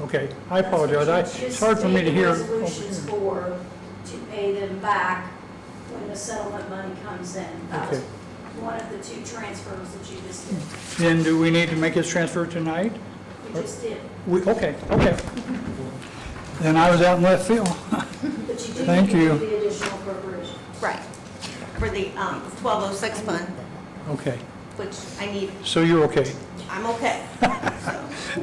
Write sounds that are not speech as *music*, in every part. Okay, I apologize, I, it's hard for me to hear. Just make resolutions for, to pay them back when the settlement money comes in. That was Okay. one of the two transfers that you just did, Then do we need to make this transfer tonight? you Uh, just did. We, okay, okay. Then I was out in left field. *laughs* But you do need Thank to do you. the additional appropriation. Right, for the um, 1206 fund, Okay, which I need, so you're okay. I'm *laughs* okay. So,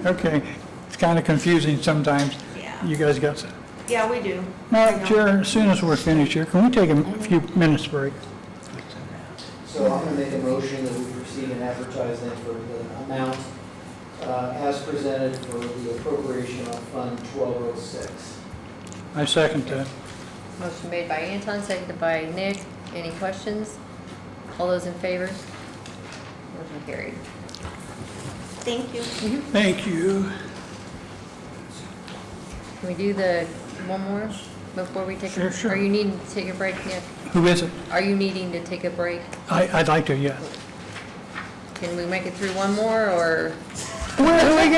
Okay, it's kind of confusing sometimes. Yeah, You guys got, yeah, we do. I now, know. Chair, as soon as we're finished here, can we take a few minutes break? So I'm going to make a motion that we proceed in advertising for the amount uh, as presented for the appropriation on Fund 1206. I second that. Motion made by Anton, seconded by Nick. Any questions? All those in favor? Motion carried. Thank you. Thank you. Can we do the one more before we take? a- Sure, sure. Are you needing to take a break, Nick? Who is it? Are you needing to take a break? I, I'd like to, yes. Can we make it through one more, or? Where are we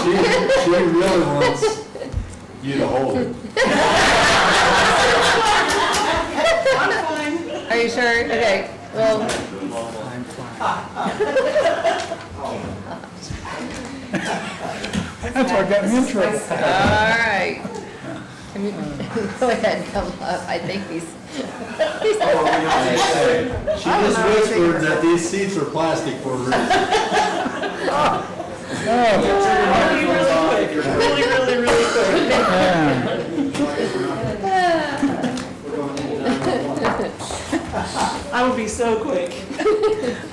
going? She, she really wants you to hold it. Are you sure? Okay, well, That's our gut intro. all right. Can we- *laughs* Go ahead, come up. I think he's, *laughs* She just whispered that these seats are plastic for a reason. Oh. Yeah. We're going into number one. I will be so quick,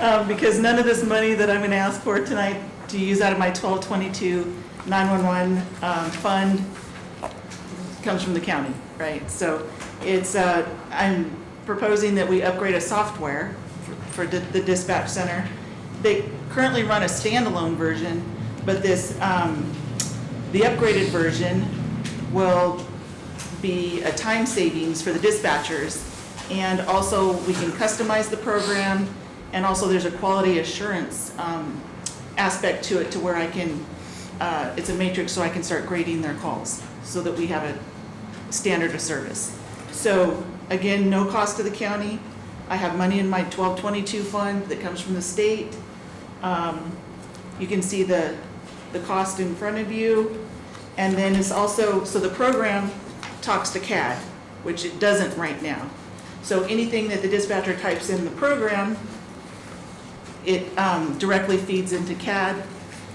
Um, because none of this money that I'm going to ask for tonight to use out of my 1222 911 um, fund comes from the county, right? So it's, uh, I'm proposing that we upgrade a software for- for di- the dispatch center. They currently run a standalone version, but this, um, the upgraded version will be a time savings for the dispatchers. And also, we can customize the program, and also there's a quality assurance um, aspect to it to where I can, uh, it's a matrix, so I can start grading their calls, so that we have a standard of service. So again, no cost to the county. I have money in my 1222 fund that comes from the state. Um, You can see the, the cost in front of you. And then it's also, so the program talks to CAD, which it doesn't right now. So anything that the dispatcher types in the program, it um, directly feeds into CAD.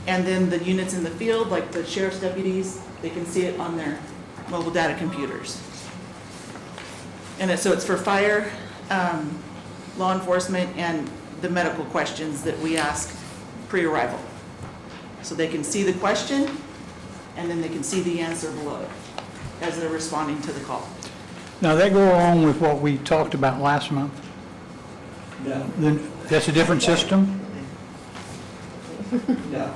And then the units in the field, like the sheriff's deputies, they can see it on their mobile data computers. And it- so it's for fire, um, law enforcement, and the medical questions that we ask pre-arrival. So they can see the question, and then they can see the answer below it as they're responding to the call. Now, that go along with what we talked about last month? No, Then, that's a different system? no.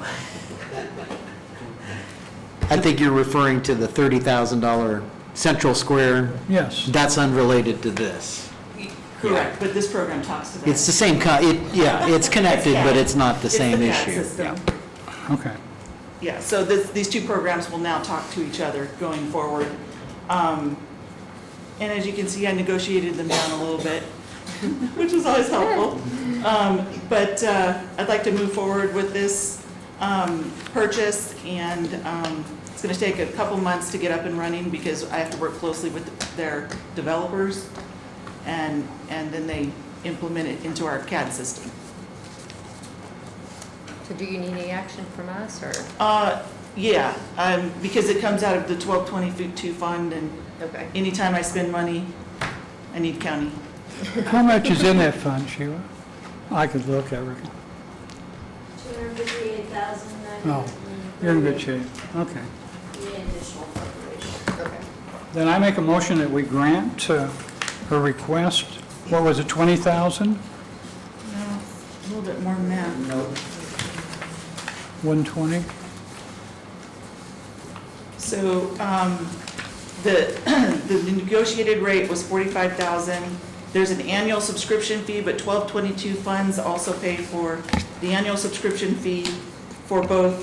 I think you're referring to the $30,000 Central Square. Yes. That's unrelated to this. Correct, but this program talks to that. It's the same, co- it, yeah, it's connected, but it's not the It's same CAD issue. system. Okay. Yeah, so this, these two programs will now talk to each other going forward. Um, And as you can see, I negotiated them down a little bit, *laughs* which is always helpful. Um, But uh, I'd like to move forward with this um, purchase, and um, it's going to take a couple months to get up and running because I have to work closely with their developers, and, and then they implement it into our CAD system. so do you need any action from us, or? Uh, Yeah, um, because it comes out of the 1222 fund, and Okay. anytime I spend money, I need county. How much is in that fund, Sheila? I could look, I reckon. Two hundred fifty-eight thousand nine Oh, hundred. You're in good shape. Okay. The additional appropriation. Then I make a motion that we grant uh, her request, what was it, 20,000? No, a little bit more than that. No, 120? So um, the, the *clears throat* negotiated rate was 45,000. There's an annual subscription fee, but 1222 funds also pay for the annual subscription fee for both